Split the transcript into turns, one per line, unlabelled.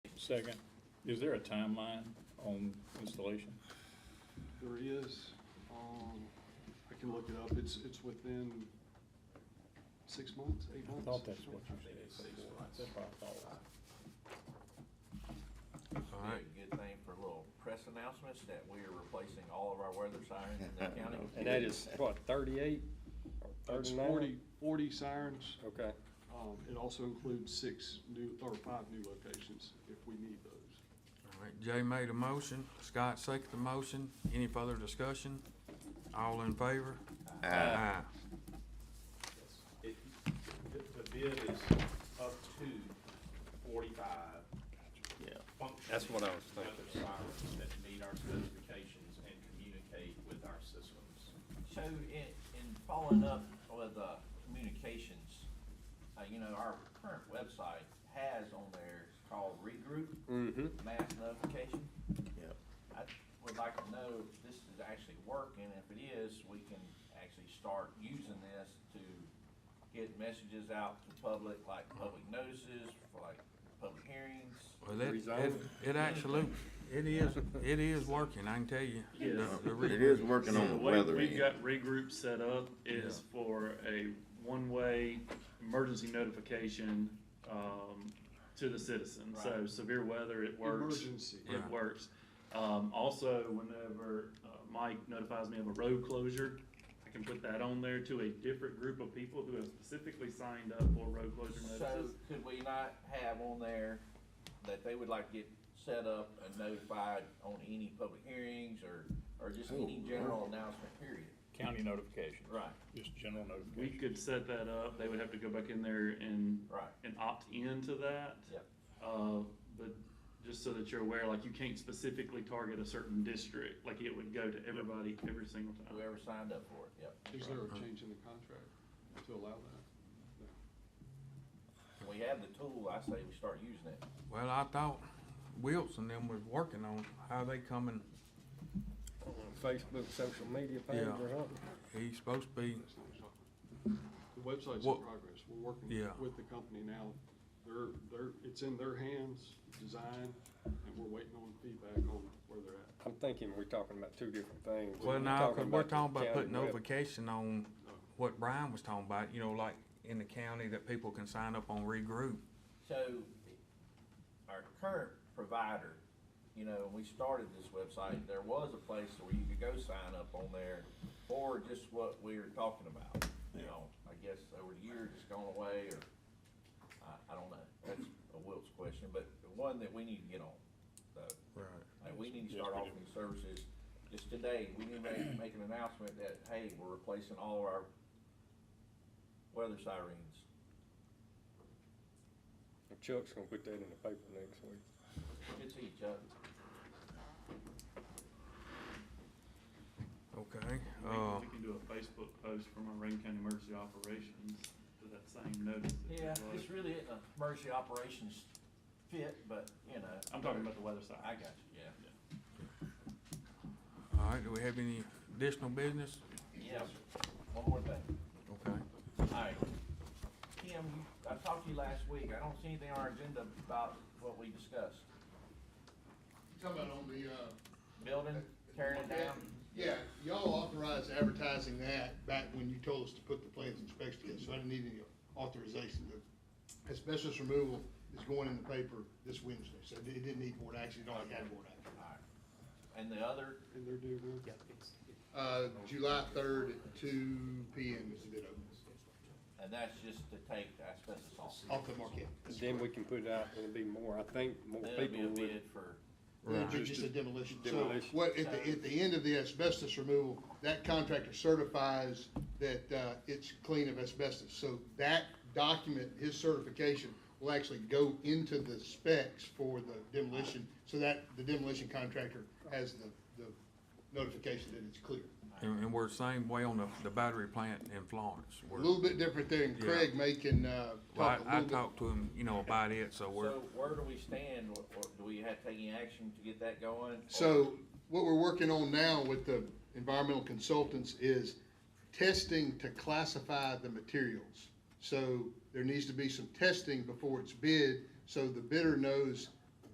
second, is there a timeline on installation?
There is, um, I can look it up, it's, it's within six months, eight
I
months.
thought that's what you said. That's what I thought.
All
Be
right.
a good thing for little press announcements that we are replacing all of our weather sirens in the county.
And that is, what, thirty-eight or
It's
thirty-nine?
forty, forty sirens,
Okay,
um, it also includes six new, or five new locations if we need those.
All right, Jay made a motion, Scott seconded the motion. Any further discussion? All in favor? Aye.
It, the, the bid is up to forty-five.
Yeah,
functioning
that's what I was thinking.
weather sirens that meet our specifications and communicate with our systems.
So in, in following up with, uh, communications, uh, you know, our current website has on there, it's called Regroup
mm-hmm,
Mass Notification.
Yep.
I would like to know if this is actually working, if it is, we can actually start using this to get messages out to public, like public notices, for like public hearings.
Well, it, it,
Rezone.
it actually, it is, it is working, I can tell you.
Yes.
The- the
It
re-
is working on the
way
weather
We've
end.
got regroup set up is for a one-way emergency notification, um, to the citizen. So
Right.
severe weather, it works.
Emergency.
Yeah.
It works. Um, also, whenever uh, Mike notifies me of a road closure, I can put that on there to a different group of people who have specifically signed up for road closure
So
notices.
could we not have on there that they would like to get set up and notified on any public hearings or, or just any
Oh,
general announcement period?
County notification.
Right,
Just general
We
notification.
could set that up. They would have to go back in there and,
right,
and opt into that.
Yep.
Uh, but just so that you're aware, like you can't specifically target a certain district, like it would go to everybody every single time.
whoever signed up for it, yep.
Is there
Uh-huh.
a change in the contract to allow that?
We have the tool, I say we start using it.
Well, I thought Wilson them was working on how they coming,
Facebook, social media page
Yeah.
or something.
he's supposed to be,
That's not what I'm talking about. The website's
What-
in progress, we're working
Yeah.
with the company now, they're, they're, it's in their hands, design, and we're waiting on feedback on where they're at.
I'm thinking we're talking about two different things.
well, now, cause we're talking
the
about putting
county
notification on what Brian was talking about, you know, like in the county that people can sign up on regroup.
So, our current provider, you know, when we started this website, there was a place where you could go sign up on there for just what we were talking about, you know, I guess over the years it's gone away, or, I, I don't know, that's a Wilt's question, but the one that we need to get on, so.
Right.
Like, we need to start offering services, just today, we need to make, make an announcement that, hey, we're replacing all of our weather sirens.
web. Chuck's gonna put that in the paper next week.
Good to see you, Chuck.
Okay,
We
uh,
can- We can do a Facebook post from our Rankin County Emergency Operations to that same notice. that you
Yeah,
love.
this really isn't a emergency operations fit, but, you know.
I'm talking about the weather side.
I got you, yeah.
all right, do we have any additional business?
Yes, one more thing.
Okay.
Alright. Kim, you- I talked to you last week. I don't see anything on our agenda about what we discussed.
Talking about on the, uh.
Building, tearing it down.
Yeah, y'all authorized advertising that back when you told us to put the plans and specs together, so I didn't need any authorization to. Asbestos removal is going in the paper this Wednesday, so it didn't need board action, it already had board action.
Alright. And the other,
And they're doing that?
Uh, July third at two P M is the bid open,
and that's just to take the asbestos off.
off the market.
Then we can put it out, and it'll be more, I think, more
There'll be
people
a
would.
bid for,
It'd be just a demolition. So
Demolition.
what, at the, at the end of the asbestos removal, that contractor certifies that, uh, it's clean of asbestos. So that document, his certification, will actually go into the specs for the demolition, so that the demolition contractor has the, the notification that it's clear.
And, and we're same way on the, the battery plant in Florence.
A
We're-
little bit different there, and Craig may can, uh,
Well,
talk a
I, I
little bit.
talked to him, you know, about it, so we're,
so where do we stand? Or- or Do we have to take any action to get that going? Or-
So what we're working on now with the environmental consultants is testing to classify the materials. So there needs to be some testing before it's bid, so the bidder knows